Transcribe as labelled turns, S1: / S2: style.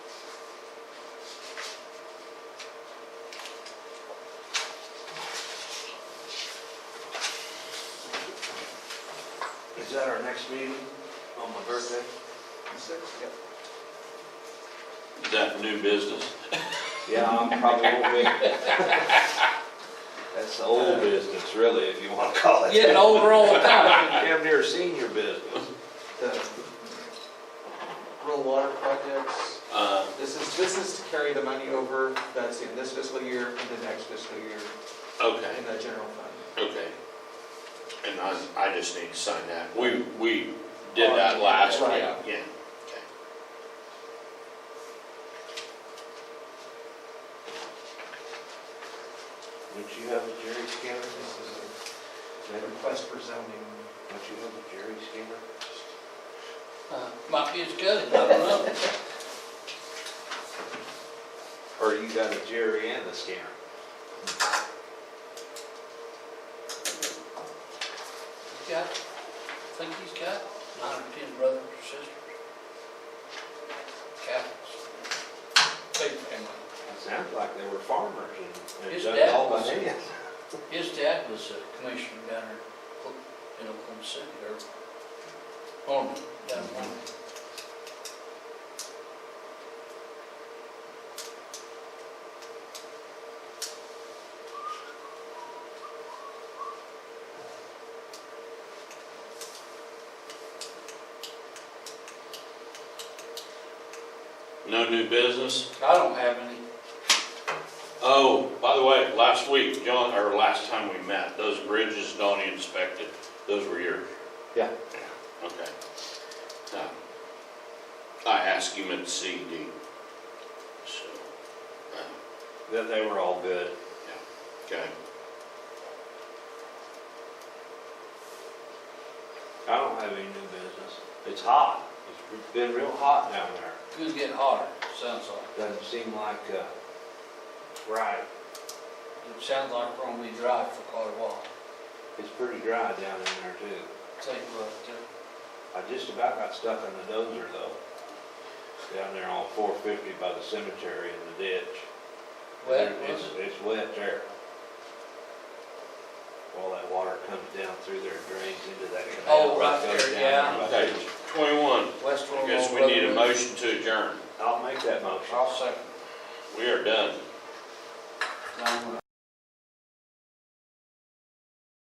S1: Is that our next meeting on my birthday? Yep.
S2: Is that new business?
S1: Yeah, I'm probably will be. That's the old business, really, if you want to call it.
S3: Getting older all the time.
S1: Damn near senior business.
S4: the rural water projects.
S2: Uh,
S4: This is, this is to carry the money over that's in this fiscal year and the next fiscal year
S2: okay,
S4: in the general fund.
S2: okay. And I, I just need to sign that. We, we did that last week,
S4: Right.
S2: yeah.
S1: Would you have a Jerry scanner?
S4: This is
S1: Would
S4: a request for zoning.
S1: you have a Jerry scanner?
S3: Uh, Might be his cousin, I don't know.
S1: Or you got a Jerry and a scanner?
S3: He's got, I think he's got nine or ten brothers or sisters. Countless. Big family.
S1: It sounds like they were farmers and- and
S3: His
S1: done it all
S3: dad
S1: by
S3: was-
S1: hand.
S3: His dad was a commissioner down there in Oklahoma City, or Norman, down in Norman.
S2: No new business?
S3: I don't have any.
S2: Oh, by the way, last week, John, or last time we met, those bridges Donnie inspected, those were yours?
S1: Yeah.
S2: Okay. Um, I asked him at CD, so, uh,
S1: That they were all good.
S2: okay.
S1: I don't have any new business. It's hot. It's been real hot down there.
S3: Could get hotter, sounds like.
S1: Doesn't seem like, uh, right.
S3: It sounds like we're gonna be dry for quite a while.
S1: It's pretty dry down in there too.
S3: Take a look, too.
S1: I just about got stuck in the dozer though. Down there on four fifty by the cemetery in the ditch.
S3: Wet,
S1: There-
S3: was
S1: It's,
S3: it?
S1: it's wet there. All that water comes down through there and drains into that canal.
S3: Oh, right
S1: that goes
S3: there,
S1: down
S3: yeah.
S1: by
S2: Okay,
S1: the-
S2: twenty-one,
S3: West
S2: I
S3: Royal.
S2: guess we
S3: Road.
S2: need a motion to adjourn.
S1: I'll make that motion.
S3: I'll second.
S2: We are done.
S3: No, I'm not.